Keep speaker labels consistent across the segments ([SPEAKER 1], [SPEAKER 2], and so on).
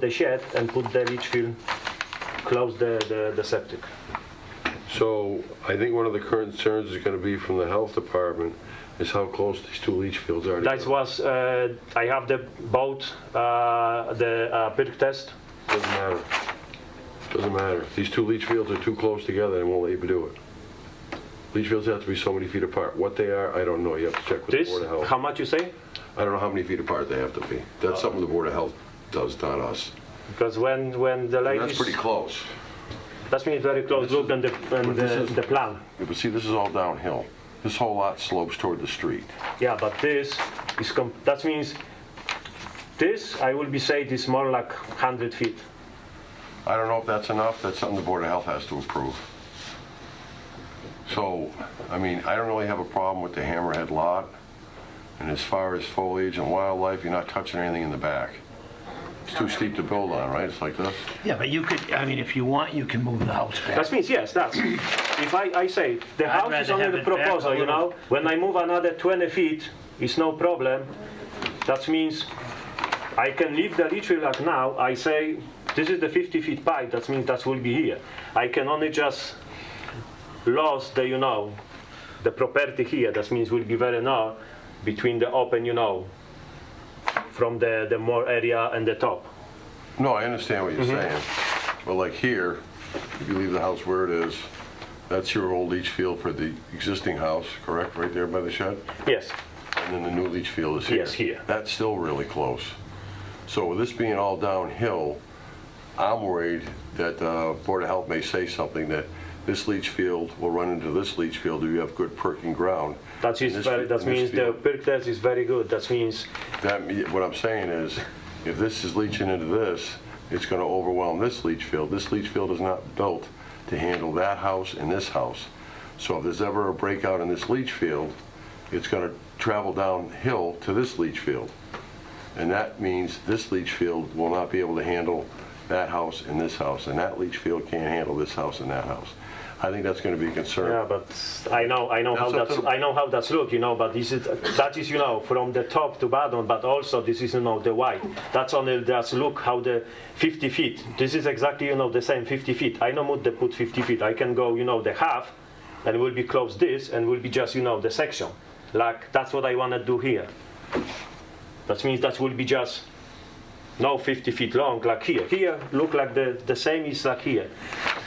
[SPEAKER 1] the shed and put the leach field, close the, the, the septic.
[SPEAKER 2] So I think one of the current concerns is going to be from the health department is how close these two leach fields are.
[SPEAKER 1] That
[SPEAKER 2] together.
[SPEAKER 1] was, uh, I have the both, uh, the uh, perk test.
[SPEAKER 2] Doesn't matter. Doesn't matter. If These two leach fields are too close together, they won't let you do it. Leach fields have to be so many feet apart. What they are, I don't know. You have to check with the
[SPEAKER 1] This,
[SPEAKER 2] Board of
[SPEAKER 1] how
[SPEAKER 2] Health.
[SPEAKER 1] much you say?
[SPEAKER 2] I don't know how many feet apart they have to be. That's something the Board of Health does, not us.
[SPEAKER 1] Because when, when the
[SPEAKER 2] And That's
[SPEAKER 1] ladies,
[SPEAKER 2] pretty close.
[SPEAKER 1] that's mean very close look and the, and
[SPEAKER 2] this
[SPEAKER 1] the,
[SPEAKER 2] is-
[SPEAKER 1] the plan.
[SPEAKER 2] Yeah, But see, this is all downhill. This whole lot slopes toward the street.
[SPEAKER 1] Yeah, but this is, com- that means this, I will be say this more like 100 feet.
[SPEAKER 2] I don't know if that's enough, that's something the Board of Health has to approve. So, I mean, I don't really have a problem with the Hammerhead lot, and as far as foliage and wildlife, you're not touching anything in the back. It's too steep to build on, right? It's like this?
[SPEAKER 3] Yeah, but you could, I mean, if you want, you can move the house back.
[SPEAKER 1] That means, yes, that's, if I, I say, the
[SPEAKER 3] I'd
[SPEAKER 1] house is
[SPEAKER 3] rather
[SPEAKER 1] only
[SPEAKER 3] have
[SPEAKER 1] the
[SPEAKER 3] it back a
[SPEAKER 1] proposal, you
[SPEAKER 3] little.
[SPEAKER 1] know? When I move another 20 feet, it's no problem. That means I can leave the leach field like now, I say, this is the 50 feet pipe, that means that will be here. I can only just lose the, you know, the property here, that means will be very narrow between the open, you know, from the, the more area and the top.
[SPEAKER 2] No, I understand what you're saying, but like here, if you leave the house where it is, that's your old leach field for the existing house, correct, right there by the shed?
[SPEAKER 1] Yes,
[SPEAKER 2] And then the new leach field is here.
[SPEAKER 1] Yes, here.
[SPEAKER 2] That's still really close. So with this being all downhill, I'm worried that uh, Board of Health may say something that this leach field will run into this leach field if you have good perking ground.
[SPEAKER 1] that is,
[SPEAKER 2] And
[SPEAKER 1] very-
[SPEAKER 2] this fi-
[SPEAKER 1] that
[SPEAKER 2] and this
[SPEAKER 1] means the
[SPEAKER 2] field-
[SPEAKER 1] perk test is very good, that means
[SPEAKER 2] That, me- what I'm saying is, if this is leaching into this, it's going to overwhelm this leach field. This leach field is not built to handle that house and this house. So if there's ever a breakout in this leach field, it's going to travel downhill to this leach field. And that means this leach field will not be able to handle that house and this house, and that leach field can't handle this house and that house. I think that's going to be a
[SPEAKER 1] Yeah,
[SPEAKER 2] concern.
[SPEAKER 1] but I know, I know how
[SPEAKER 2] That's up to
[SPEAKER 1] that's,
[SPEAKER 2] the-
[SPEAKER 1] I know how that's look, you know, but this is, that is, you know, from the top to bottom, but also this is, you know, the white. That's only, that's look how the 50 feet, this is exactly, you know, the same 50 feet. I know what they put 50 feet, I can go, you know, the half, and will be close this, and will be just, you know, the section. Like, that's what I wanna do here. That means that will be just, no 50 feet long, like here. Here, look like the, the same is like here.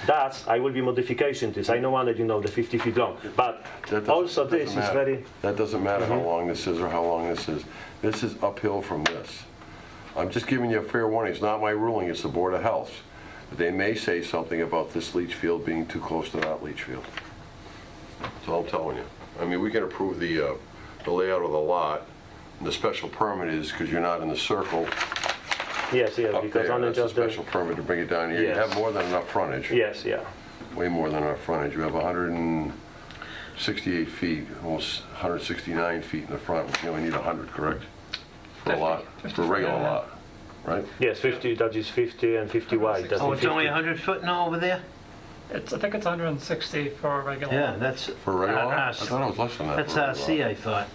[SPEAKER 1] That's, I will be modification this. I know one that you know, the 50 feet long. But
[SPEAKER 2] That doesn't-
[SPEAKER 1] also
[SPEAKER 2] doesn't
[SPEAKER 1] Oh, this is
[SPEAKER 2] matter.
[SPEAKER 1] very, Mhm.
[SPEAKER 2] That doesn't matter how long this is or how long this is. This is uphill from this. I'm just giving you a fair warning. It's not my ruling, it's the Board of Health. But They may say something about this leach field being too close to that leach field. That's all I'm telling you. I mean, we can approve the, uh, the layout of the lot. And The special permit is, because you're not in the circle
[SPEAKER 1] yes, yes,
[SPEAKER 2] up
[SPEAKER 1] because
[SPEAKER 2] there,
[SPEAKER 1] only
[SPEAKER 2] that's a
[SPEAKER 1] just
[SPEAKER 2] special
[SPEAKER 1] the,
[SPEAKER 2] permit to bring it down here. You have
[SPEAKER 1] Yes.
[SPEAKER 2] more than enough frontage
[SPEAKER 1] yes, yeah.
[SPEAKER 2] way more than our frontage. We have 168 feet, almost 169 feet in the front, which you only need 100, correct? For a lot, for a regular lot, right?
[SPEAKER 1] Yes, 50, that is 50 and 50 wide. That's
[SPEAKER 3] Oh, it's only
[SPEAKER 1] 50.
[SPEAKER 3] 100 foot now over there?
[SPEAKER 4] It's, I think it's 160 for a regular.
[SPEAKER 3] Yeah, that's,
[SPEAKER 2] For a regular
[SPEAKER 3] Uh,
[SPEAKER 2] lot? I
[SPEAKER 3] us.
[SPEAKER 2] thought it was less than that.
[SPEAKER 3] that's uh,
[SPEAKER 2] for a regular
[SPEAKER 3] RC,
[SPEAKER 2] lot.
[SPEAKER 3] I thought.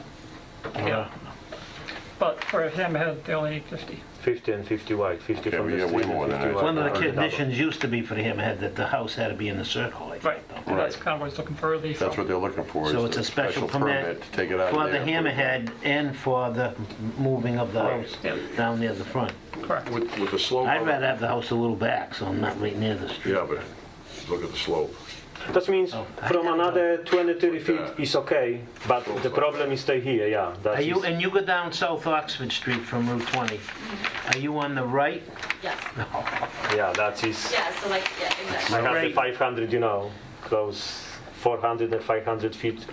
[SPEAKER 3] Uh,
[SPEAKER 4] Yeah. But for a hammerhead, they only need 50.
[SPEAKER 1] 50 and 50 wide, 50
[SPEAKER 2] Yeah,
[SPEAKER 1] from
[SPEAKER 2] we
[SPEAKER 1] the
[SPEAKER 2] have
[SPEAKER 1] street
[SPEAKER 2] way more
[SPEAKER 1] and
[SPEAKER 2] than
[SPEAKER 1] 50
[SPEAKER 2] that.
[SPEAKER 1] wide.
[SPEAKER 3] One of the
[SPEAKER 2] Right.
[SPEAKER 3] conditions used to be for the hammerhead that the house had to be in the circle, I
[SPEAKER 4] Right.
[SPEAKER 3] think. though.
[SPEAKER 4] And that's
[SPEAKER 2] Right.
[SPEAKER 4] kind of what he's looking for relief
[SPEAKER 2] That's
[SPEAKER 4] from.
[SPEAKER 2] what they're looking for. is
[SPEAKER 3] So it's
[SPEAKER 2] the
[SPEAKER 3] a special permit
[SPEAKER 2] To take it out of
[SPEAKER 3] for the
[SPEAKER 2] there.
[SPEAKER 3] hammerhead and for the moving of the house
[SPEAKER 4] Yeah.
[SPEAKER 3] down near the front.
[SPEAKER 4] Correct.
[SPEAKER 2] With, with the slope.
[SPEAKER 3] I'd
[SPEAKER 2] of-
[SPEAKER 3] rather have the house a little back, so I'm not right near the street.
[SPEAKER 2] Yeah, but look at the slope.
[SPEAKER 1] That means
[SPEAKER 3] Oh, I
[SPEAKER 1] from
[SPEAKER 3] didn't
[SPEAKER 1] another 20, 30 feet
[SPEAKER 2] that.
[SPEAKER 1] is okay, but the problem is stay here, yeah. that
[SPEAKER 3] Are you,
[SPEAKER 1] is-
[SPEAKER 3] and you go down South Oxford Street from Route 20. Are you on the right?
[SPEAKER 5] Yes,
[SPEAKER 1] Yeah, that is.
[SPEAKER 5] yeah, so like, yeah,
[SPEAKER 1] I
[SPEAKER 5] exactly.
[SPEAKER 1] have the
[SPEAKER 3] Right.
[SPEAKER 1] 500, you know, close 400 and 500 feet.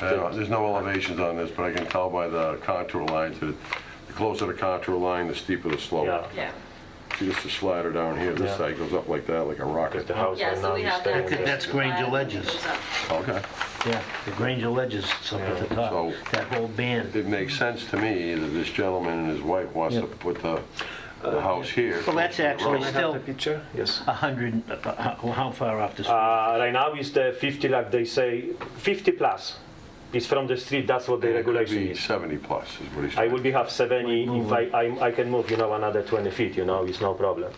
[SPEAKER 2] I don't know, There's no elevations on this, but I can tell by the contour lines that it- the closer the contour line, the steeper the slope.
[SPEAKER 1] Yeah,
[SPEAKER 5] Yeah,
[SPEAKER 2] See, this is slider down here, this
[SPEAKER 1] Yeah.
[SPEAKER 2] side goes up like that, like a rocket.
[SPEAKER 1] because the house
[SPEAKER 5] yeah,
[SPEAKER 1] right
[SPEAKER 5] so
[SPEAKER 1] now
[SPEAKER 5] we
[SPEAKER 1] is
[SPEAKER 5] have that.
[SPEAKER 1] staying
[SPEAKER 3] think
[SPEAKER 1] there.
[SPEAKER 3] that's Granger Ledges.
[SPEAKER 5] Goes up.
[SPEAKER 2] Okay.
[SPEAKER 3] Yeah, the Granger Ledges up at the top,
[SPEAKER 2] So-
[SPEAKER 3] that whole band.
[SPEAKER 2] It makes sense to me that this gentleman and his wife wants to put the, the house here.
[SPEAKER 3] Well, that's actually still
[SPEAKER 1] picture? Yes.
[SPEAKER 3] 100, uh, uh, how far off the street?
[SPEAKER 1] Uh, right now is the 50, like they say, 50 plus. It's from the street, that's what the
[SPEAKER 2] It could
[SPEAKER 1] regulation
[SPEAKER 2] be
[SPEAKER 1] is.
[SPEAKER 2] 70 plus is what he's
[SPEAKER 1] I
[SPEAKER 2] saying.
[SPEAKER 1] will be have 70, if I, I, I can move, you know, another 20 feet, you know, it's no problem.